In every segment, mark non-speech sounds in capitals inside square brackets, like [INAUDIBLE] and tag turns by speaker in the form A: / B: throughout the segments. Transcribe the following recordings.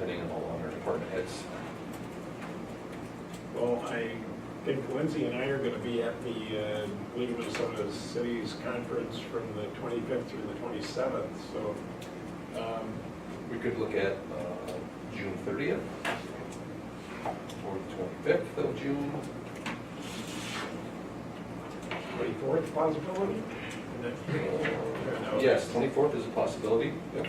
A: hitting them all under department heads.
B: Well, I think Lindsay and I are gonna be at the uh, League of Minnesota Cities Conference from the twenty-fifth through the twenty-seventh, so, um,
A: We could look at uh, June thirtieth or the twenty-fifth of June.
B: twenty-fourth possibility? And then- No.
A: Yes, twenty-fourth is a possibility. Yep.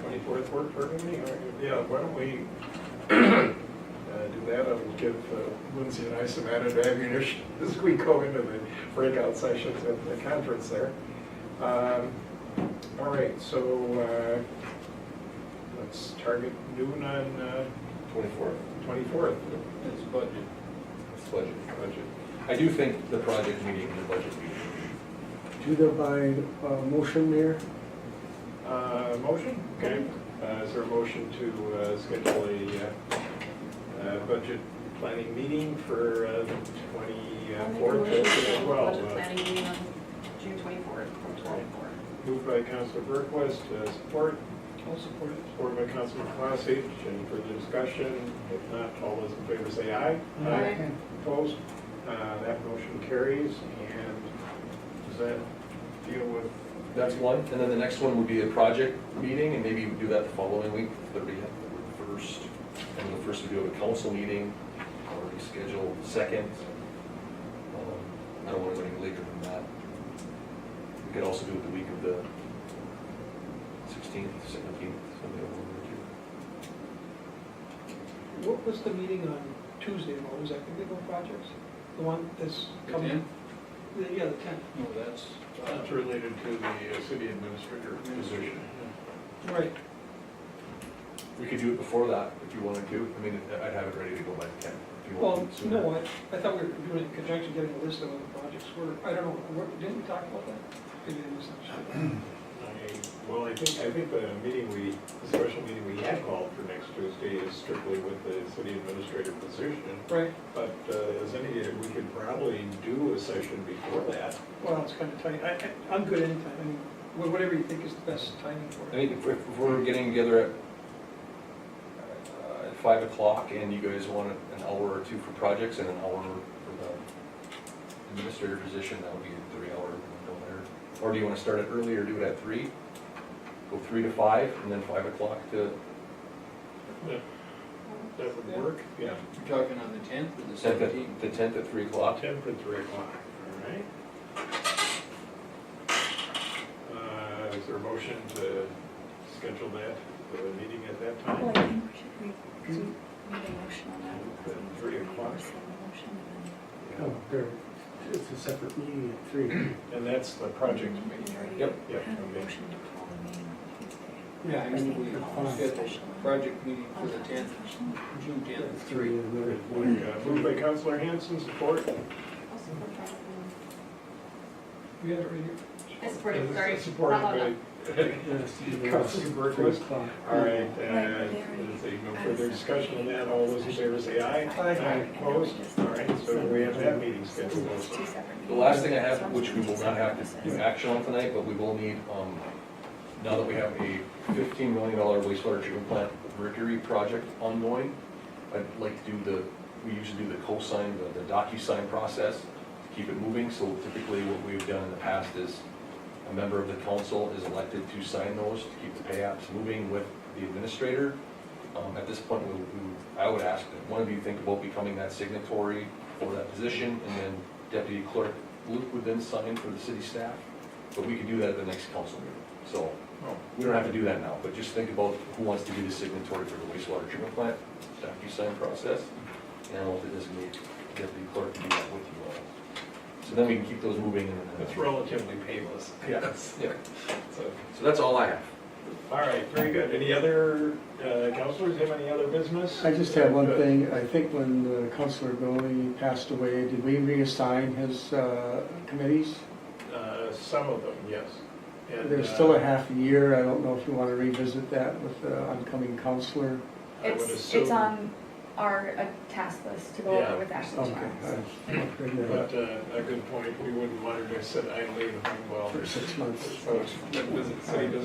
B: Twenty-fourth work for me, or, yeah, why don't we [CLEARS THROAT] uh, do that, and give uh, Lindsay and I some added ammunition [LAUGHS] as we go into the breakout sessions at the conference there. Um, All right, so, uh, let's target noon on uh,
A: Twenty-fourth,
B: twenty-fourth.
C: It's budget.
A: it's budget. Budget. I do think the project meeting and the budget meeting.
D: Do that by uh, motion, Mayor?
B: Motion, okay, Uh, is there a motion to uh, schedule a uh, uh, budget planning meeting for uh, the
E: I'll make a
B: twenty-fourth
E: motion to
B: at
E: schedule a
B: twelve? uh,
E: budget planning meeting on June twenty-fourth from twelve to four.
B: Moved by Councilor Berquist, uh, support. All support. Support by Councilor Clausage, any further discussion? If not, all those in favor say aye.
E: Aye.
B: Opposed? Uh, That motion carries, and does that deal with?
A: That's one, and then the next one would be a project meeting, and maybe we do that the following week, thirtieth, first. And the first would be a council meeting, already scheduled, second. Um, I don't want to go any later than that. We could also do it the week of the sixteenth, seventeenth, something over
F: What was the meeting on Tuesday, what was that, the legal projects? The one that's
C: The
F: coming?
C: 10th?
F: The- Yeah, the tenth,
C: No, that's,
B: That's related to the uh, city administrator position.
A: there.
F: right.
A: We could do it before that, if you wanted to, I mean, I'd have it ready to go by ten, if you
F: Well,
A: want to sooner.
F: no, I, I thought we were doing it in conjunction, getting a list of all the projects, we're, I don't know, what, didn't we talk about that? Maybe I missed that.
B: I- Well, I think, I think the meeting we, the special meeting we had called for next Tuesday is strictly with the city administrator position.
F: Right,
B: But uh, as any, we could probably do a session before that.
F: well, it's kind of tight, I, I, I'm good anytime, I mean, wha- whatever you think is the best timing
A: I
F: for it.
A: think if, if we're getting together at, uh, at five o'clock and you guys want an hour or two for projects and an hour for the administrator position, that would be a three hour window there. Or do you wanna start it early or do it at three? Go three to five and then five o'clock to
B: That would work? Yeah.
C: you're talking on the tenth or the
A: tenth,
C: seventeenth?
A: at- the tenth at three o'clock.
B: Ten for three o'clock, all right. Uh, Is there a motion to schedule that, the meeting at that time?
E: Well, Oh, I think we should, re- 'cause we need a motion on that.
B: Then three o'clock.
D: Oh, there, it's a separate meeting at three.
B: And that's the project meeting, right?
E: meeting.
A: Yep.
B: Yep,
E: Had a
B: okay.
E: motion to call the meeting on Tuesday.
C: Yeah, I mean, we
D: Fine.
C: scheduled project meeting for the
E: Uh,
C: tenth,
E: session.
C: June
D: At
C: tenth.
D: [CLEARS THROAT] three. and then at one.
B: Uh, Moved by Counselor Hanson, support.
E: I'll support that.
F: We had it right here.
E: I support it, sorry.
B: Supported
E: Not loud
B: by, [LAUGHS]
D: Yes, you know,
B: Councilor Berquist.
D: three o'clock.
B: all right, uh,
E: Right,
B: is there no
E: I
B: further
E: second.
B: discussion on that, all those in favor say aye.
F: Aye.
B: Opposed? All right, so we have that meeting
E: So
B: scheduled
E: it's
B: also.
E: two separate
A: The last thing I
E: meetings. So
A: have,
E: I'm
A: which we will not have to do
E: Yeah.
A: action on tonight, but we will need, um, now that we have a fifteen million dollar wastewater treatment plant mercury project ongoing, I'd like to do the, we usually do the cosign, the, the docu-sign process to keep it moving, so typically what we've done in the past is a member of the council is elected to sign those to keep the pay apps moving with the administrator. Um, at this point, we, we, I would ask that one of you think about becoming that signatory for that position, and then deputy clerk Luke would then sign for the city staff, but we could do that at the next council meeting. So,
B: Oh,
A: we don't have to do that now, but just think about who wants to be the signatory for the wastewater treatment plant, docu-sign process, and I'll designate deputy clerk to do that with you all. So then we can keep those moving and. uh,
B: It's relatively painless.
A: Yes, yeah,
B: So,
A: so that's all I have.
B: All right, very good. Any other, uh, counselors have any other business?
D: I just have one
B: Good.
D: thing, I think when uh, Councilor Billy passed away, did we reassign his uh, committees?
B: Uh, Some of them, yes. And,
D: There's
B: uh,
D: still a half a year, I don't know if you want to revisit that with the oncoming counselor.
B: I would
E: It's,
B: assume-
E: it's on our uh, task list to go
B: Yeah.
E: over with Ashley
D: Okay.
E: tomorrow.
D: I- oh, I'll bring that up
B: But uh, a good point, we wouldn't want her to sit idly and hung well.
D: For six months.
B: So, visit city business